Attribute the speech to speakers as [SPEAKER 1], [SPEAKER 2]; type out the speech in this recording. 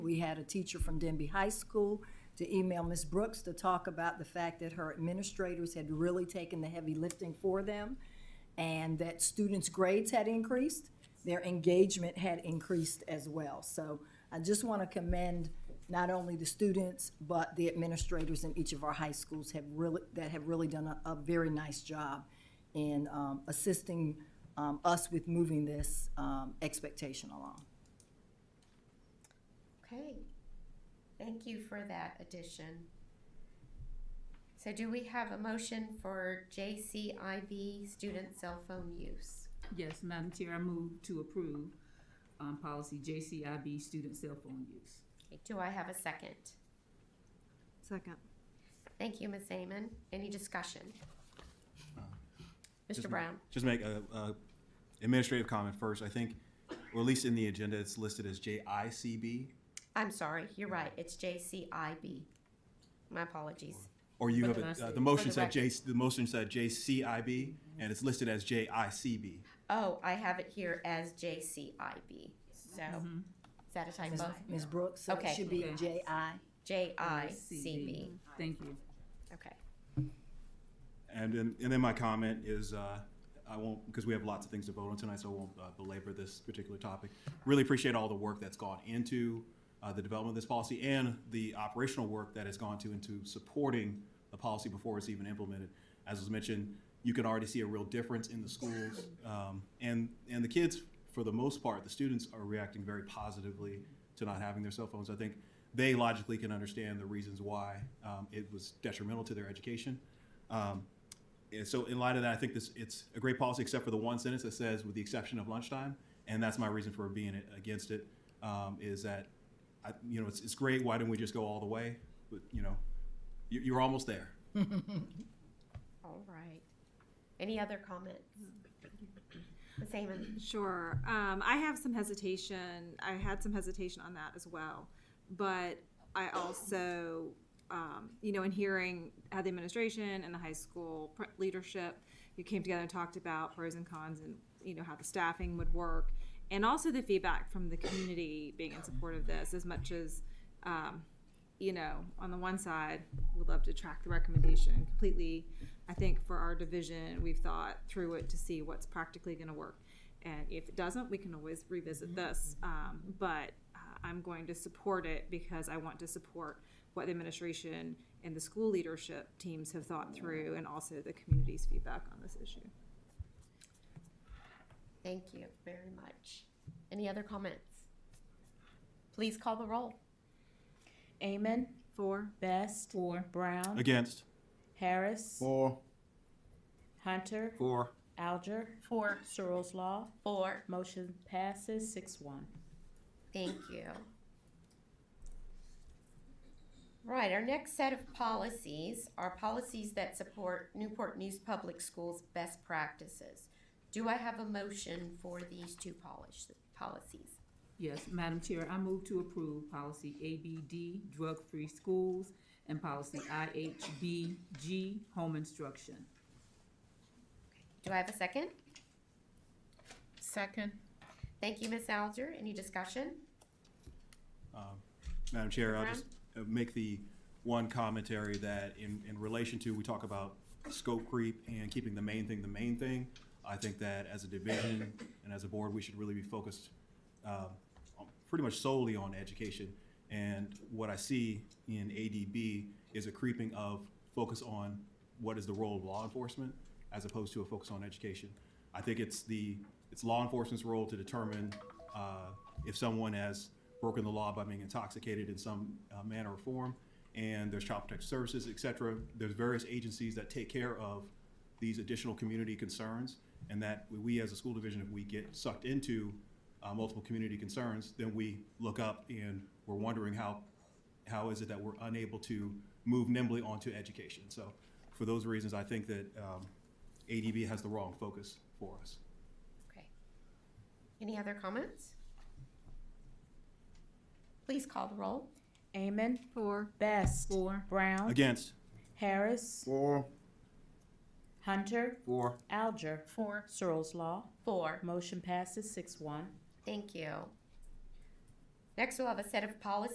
[SPEAKER 1] We had a teacher from Denby High School to email Ms. Brooks to talk about the fact that her administrators had really taken the heavy lifting for them and that students' grades had increased, their engagement had increased as well. So I just want to commend not only the students, but the administrators in each of our high schools have really, that have really done a, a very nice job in um, assisting um, us with moving this um, expectation along.
[SPEAKER 2] Okay, thank you for that addition. So do we have a motion for JCIB student cell phone use?
[SPEAKER 3] Yes, Madam Chair, I move to approve, um, policy JCIB, student cell phone use.
[SPEAKER 2] Do I have a second?
[SPEAKER 4] Second.
[SPEAKER 2] Thank you, Ms. Amon. Any discussion? Mr.
[SPEAKER 5] Just-
[SPEAKER 2] Brown?
[SPEAKER 5] Just make a, a administrative comment first. I think, or at least in the agenda, it's listed as JICB.
[SPEAKER 2] I'm sorry, you're right, it's JCIB. My apologies.
[SPEAKER 5] Or you
[SPEAKER 3] What
[SPEAKER 5] have,
[SPEAKER 3] did I
[SPEAKER 5] a- uh,
[SPEAKER 3] say?
[SPEAKER 5] the motion
[SPEAKER 2] For the
[SPEAKER 5] said J, the motion said JCIB, and it's listed as JICB.
[SPEAKER 2] Oh, I have it here as JCIB, so, is that a
[SPEAKER 1] Ms.
[SPEAKER 2] typo?
[SPEAKER 1] Ms. Brooks, so it
[SPEAKER 2] Okay.
[SPEAKER 1] should be
[SPEAKER 3] Okay.
[SPEAKER 1] J.I.
[SPEAKER 2] JICB,
[SPEAKER 3] Thank you.
[SPEAKER 2] okay.
[SPEAKER 5] And then, and then my comment is, uh, I won't, because we have lots of things to vote on tonight, so I won't uh, belabor this particular topic. Really appreciate all the work that's gone into uh, the development of this policy and the operational work that has gone to into supporting the policy before it's even implemented. As was mentioned, you can already see a real difference in the schools. um, And, and the kids, for the most part, the students are reacting very positively to not having their cell phones. I think they logically can understand the reasons why um, it was detrimental to their education. Um, and so in light of that, I think this, it's a great policy, except for the one sentence that says, with the exception of lunchtime, and that's my reason for being a- against it, um, is that, I, you know, it's, it's great, why didn't we just go all the way? But, you know, you, you're almost there.
[SPEAKER 2] All right. Any other comments? Ms. Amon?
[SPEAKER 4] Sure. Um, I have some hesitation. I had some hesitation on that as well. But I also, um, you know, in hearing how the administration and the high school pr- leadership, you came together and talked about pros and cons and, you know, how the staffing would work. And also the feedback from the community being in support of this as much as, um, you know, on the one side, we'd love to track the recommendation completely. I think for our division, we've thought through it to see what's practically gonna work. And if it doesn't, we can always revisit this. Um, but uh, I'm going to support it because I want to support what the administration and the school leadership teams have thought through and also the community's feedback on this issue.
[SPEAKER 2] Thank you very much. Any other comments? Please call the roll.
[SPEAKER 6] Amon,
[SPEAKER 4] Four,
[SPEAKER 6] Best,
[SPEAKER 3] Four,
[SPEAKER 6] Brown,
[SPEAKER 5] Against?
[SPEAKER 6] Harris,
[SPEAKER 5] Four.
[SPEAKER 6] Hunter,
[SPEAKER 5] Four.
[SPEAKER 6] Alger,
[SPEAKER 2] Four.
[SPEAKER 6] Searles Law.
[SPEAKER 2] Four.
[SPEAKER 6] Motion passes six one.
[SPEAKER 2] Thank you. Right, our next set of policies are policies that support Newport News Public Schools' best practices. Do I have a motion for these two polish- policies?
[SPEAKER 3] Yes, Madam Chair, I move to approve policy ABD, drug-free schools, and policy IHBG, home instruction.
[SPEAKER 2] Do I have a second?
[SPEAKER 7] Second.
[SPEAKER 2] Thank you, Ms. Alger. Any discussion?
[SPEAKER 5] Madam Chair, I'll
[SPEAKER 2] Brown?
[SPEAKER 5] just uh, make the one commentary that in, in relation to, we talk about scope creep and keeping the main thing the main thing. I think that as a division and as a board, we should really be focused um, on- pretty much solely on education. And what I see in ADB is a creeping of focus on what is the role of law enforcement as opposed to a focus on education. I think it's the, it's law enforcement's role to determine uh, if someone has broken the law by being intoxicated in some uh, manner or form. And there's child protective services, et cetera. There's various agencies that take care of these additional community concerns, and that we- we, as a school division, if we get sucked into uh, multiple community concerns, then we look up and we're wondering how, how is it that we're unable to move nimbly onto education? So for those reasons, I think that um, ADB has the wrong focus for us.
[SPEAKER 2] Okay. Any other comments? Please call the roll.
[SPEAKER 6] Amon,
[SPEAKER 4] four,
[SPEAKER 6] Best,
[SPEAKER 3] Four,
[SPEAKER 6] Brown,
[SPEAKER 5] Against?
[SPEAKER 6] Harris,
[SPEAKER 5] Four.
[SPEAKER 6] Hunter,
[SPEAKER 5] Four.
[SPEAKER 6] Alger,
[SPEAKER 7] Four.
[SPEAKER 6] Searles Law.
[SPEAKER 2] Four.
[SPEAKER 6] Motion passes six one.
[SPEAKER 2] Thank you. Next, we'll have a set of policies